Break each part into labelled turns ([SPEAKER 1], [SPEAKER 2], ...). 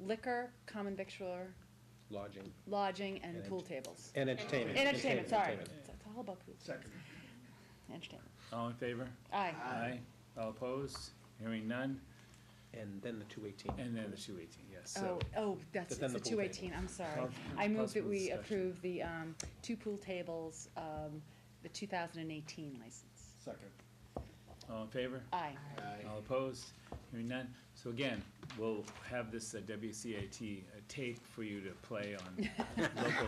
[SPEAKER 1] liquor, common victualler,
[SPEAKER 2] lodging.
[SPEAKER 1] lodging, and
[SPEAKER 2] And
[SPEAKER 1] pool
[SPEAKER 2] ent-
[SPEAKER 1] tables.
[SPEAKER 2] And entertainment.
[SPEAKER 1] And entertainment, sorry.
[SPEAKER 2] Entertainment.
[SPEAKER 1] It's it's all about pool. Second. Entertainment.
[SPEAKER 3] All in favor?
[SPEAKER 1] Aye.
[SPEAKER 3] Aye. All opposed? Hearing none,
[SPEAKER 2] And then the two eighteen.
[SPEAKER 3] and then the two eighteen, yes,
[SPEAKER 1] Oh,
[SPEAKER 3] so.
[SPEAKER 1] oh, that's,
[SPEAKER 2] But then
[SPEAKER 1] it's the
[SPEAKER 2] the pool
[SPEAKER 1] two eighteen, I'm sorry.
[SPEAKER 3] Pos-
[SPEAKER 1] I move that
[SPEAKER 3] possible
[SPEAKER 1] we
[SPEAKER 3] discussion.
[SPEAKER 1] approve the, um, two pool tables, um, the two thousand and eighteen license.
[SPEAKER 4] Second.
[SPEAKER 3] All in favor?
[SPEAKER 1] Oh. Aye.
[SPEAKER 3] All opposed? Hearing none. So again, we'll have this uh, WCAT uh, tape for you to play on local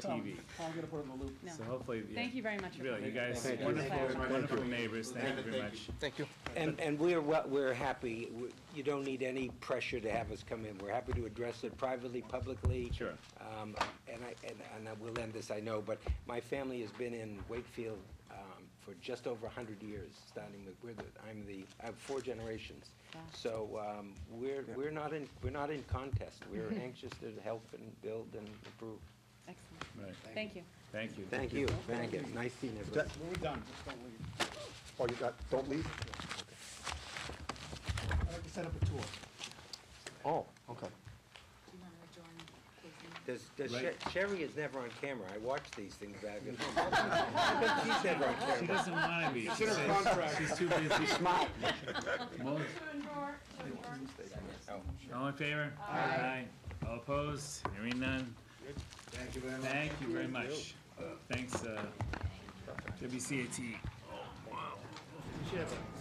[SPEAKER 3] TV.
[SPEAKER 4] I'm gonna put in the loop.
[SPEAKER 1] No.
[SPEAKER 3] So hopefully, yeah,
[SPEAKER 1] Thank you very much for
[SPEAKER 3] really, you
[SPEAKER 1] coming.
[SPEAKER 3] guys,
[SPEAKER 1] Thank you. Thank
[SPEAKER 3] wonderful,
[SPEAKER 1] you.
[SPEAKER 3] wonderful neighbors, thank you very much.
[SPEAKER 2] Thank you.
[SPEAKER 5] And, and we're, wel- we're happy, We- you don't need any pressure to have us come in, we're happy to address it privately, publicly.
[SPEAKER 3] Sure.
[SPEAKER 5] Um, and I, and, and I will end this, I know, but my family has been in Wakefield, um, for just over a hundred years, starting with, we're the, I'm the, I have four generations.
[SPEAKER 1] Wow.
[SPEAKER 5] So, um, we're, we're not in, we're not in contest, we're anxious to help and build and improve.
[SPEAKER 1] Excellent.
[SPEAKER 3] Right,
[SPEAKER 1] Thank you.
[SPEAKER 3] thank you.
[SPEAKER 5] Thank you, thank you, nice seeing everybody.
[SPEAKER 4] We're done, just don't leave.
[SPEAKER 6] Oh, you got, don't leave?
[SPEAKER 4] I'd like to set up a tour.
[SPEAKER 6] Oh, okay.
[SPEAKER 5] Does, does
[SPEAKER 3] Right.
[SPEAKER 5] Sher- Sherry is never on camera. I watch these things back at home. She's never on
[SPEAKER 3] She
[SPEAKER 5] camera.
[SPEAKER 3] doesn't wanna be, she says she's too busy. Mo- Oh. All in favor? Aye. All opposed? Hearing none?
[SPEAKER 4] Thank you very
[SPEAKER 3] Thank you very much. Thanks, uh, WCAT.
[SPEAKER 4] You should have a